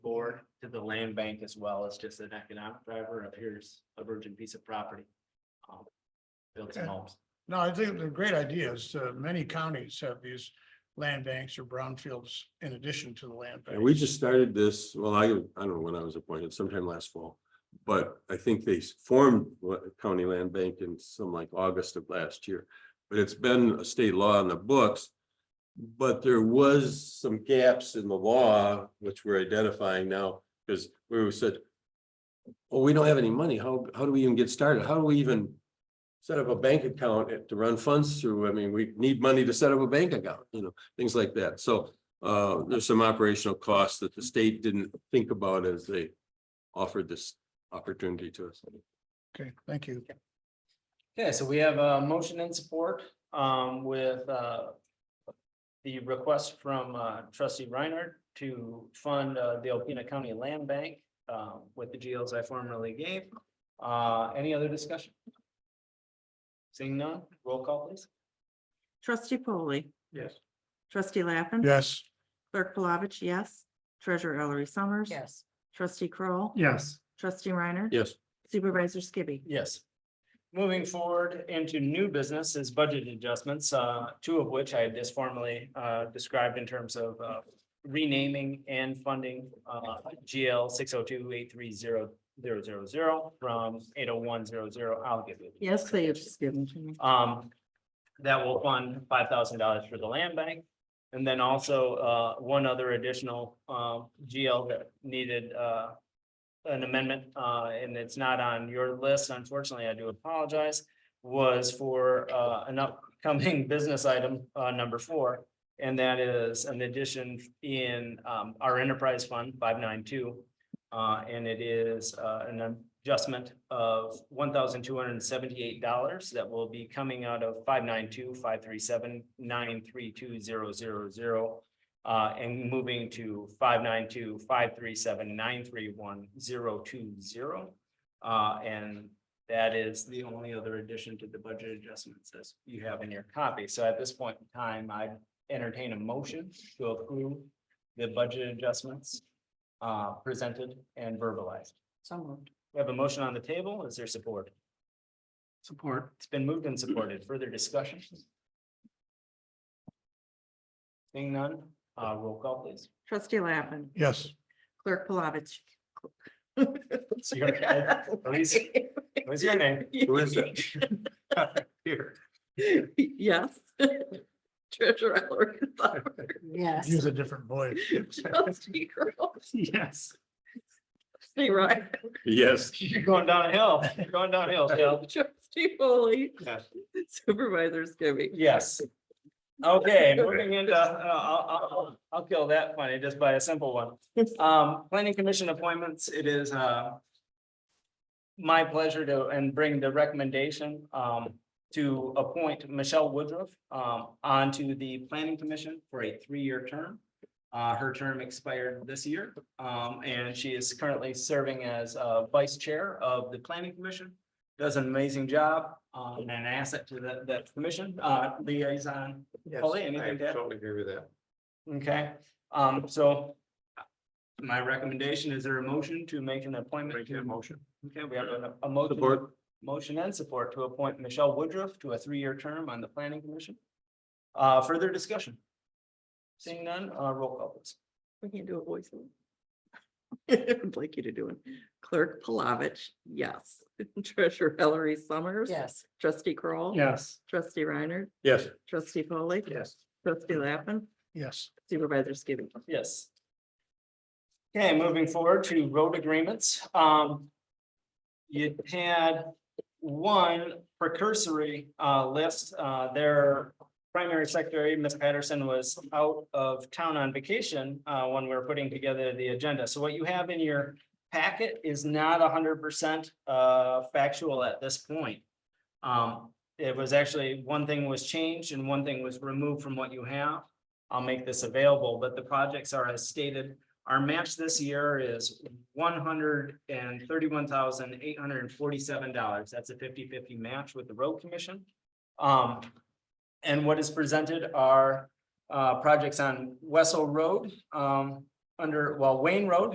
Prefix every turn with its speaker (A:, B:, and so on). A: land bank as well as just an economic driver of here's a virgin piece of property. um, Build some
B: Okay.
A: homes.
B: No, I think they're great ideas. Uh, many counties have these land banks or brownfields in addition to the land.
C: And we
B: banks.
C: just started this, well, I, I don't know when I was appointed, sometime last fall. But I think they s- formed what- County Land Bank in some like August of last year. But it's been a state law on the books. But there was some gaps in the law, which we're identifying now, because we were said. Well, we don't have any money. How, how do we even get started? How do we even? Set up a bank account to run funds through? I mean, we need money to set up a bank account, you know, things like that. So uh, there's some operational costs that the state didn't think about as they offered this opportunity to us.
B: Okay, thank you.
A: Okay, so we have a motion in support um, with uh, the request from uh, trustee Reinhardt to fund uh, the Alpena County Land Bank uh, with the GLs I formerly gave. Uh, Any other discussion? Seeing none, roll call please.
D: Trustee Polly.
A: Yes.
D: Trustee Lappin.
B: Yes.
D: Clerk Palovich, yes. Treasurer Ellery Summers.
E: yes,
D: Trustee Kroll,
B: Yes.
D: Trustee Reiner.
C: Yes,
D: Supervisor Skibby.
A: Yes. Moving forward into new business is budget adjustments, uh, two of which I had just formally, uh, described in terms of, uh, renaming and funding, uh, GL six oh two eight three zero zero zero zero from eight oh one zero zero, I'll give you.
D: Yes, they have just given to me.
A: Um, that will fund five thousand dollars for the land bank. And then also, uh, one other additional, um, GL that needed, uh, an amendment, uh, and it's not on your list, unfortunately, I do apologize, was for, uh, an upcoming business item, uh, number four. And that is an addition in, um, our enterprise fund, five nine two. Uh, and it is, uh, an adjustment of one thousand two hundred and seventy-eight dollars that will be coming out of five nine two, five three seven, nine three two, zero, zero, zero. Uh, and moving to five nine two, five three seven, nine three one, zero, two, zero. Uh, and that is the only other addition to the budget adjustments as you have in your copy. So at this point in time, I entertain a motion to approve the budget adjustments uh, presented and verbalized.
E: so moved,
A: We have a motion on the table. Is there support? Support. It's been moved and supported. Further discussion? Seeing none, uh, roll call please.
D: Trustee Lappin.
B: Yes.
D: Clerk Palovich.
A: It's your- Elise, What's your name?
C: who is that?
A: Here.
D: Yes. Treasurer Ellery Summers.
E: yes.
B: Use a different voice.
D: Trustee Kroll,
A: Yes.
D: Trustee Reiner.
C: Yes.
A: You're going downhill. You're going downhill, Dale.
D: Trustee Polly.
A: Yes.
D: Supervisor Skibby.
A: Yes. Okay, moving into, uh, I'll, I'll- I'll, I'll kill that funny just by a simple one. Um, planning commission appointments, it is, uh, my pleasure to, and bring the recommendation, um, to appoint Michelle Woodruff, um, onto the planning commission for a three-year term. Uh, her term expired this year, um, and she is currently serving as, uh, vice chair of the planning commission. Does an amazing job, um, and an asset to that, that commission, uh, liaison. Polly, anything to add?
C: agree with that.
A: Okay, um, so. My recommendation, is there a motion to make an appointment? to motion. Okay, we have a, a motion.
C: Support.
A: Motion and support to appoint Michelle Woodruff to a three-year term on the planning commission. Uh, further discussion? Seeing none, uh, roll call please.
D: We can't do a voice. I'd like you to do it. Clerk Palovich, yes. Treasurer Ellery Summers.
E: Yes,
D: Trustee Kroll,
A: Yes.
D: Trustee Reiner.
C: Yes,
D: Trustee Foley,
A: Yes.
D: Trustee Lappin.
B: Yes.
D: Supervisor Skibby.
A: Yes. Okay, moving forward to road agreements, um. You had one precursory uh list, uh their primary secretary, Ms. Patterson, was out of town on vacation. Uh when we were putting together the agenda, so what you have in your packet is not hundred percent uh factual at this point. Um, it was actually, one thing was changed and one thing was removed from what you have. I'll make this available, but the projects are as stated. Our match this year is one hundred and thirty-one thousand eight hundred and forty-seven dollars. That's a 50-50 match with the road commission. Um, and what is presented are, uh, projects on Wessel Road, um, under, well, Wayne Road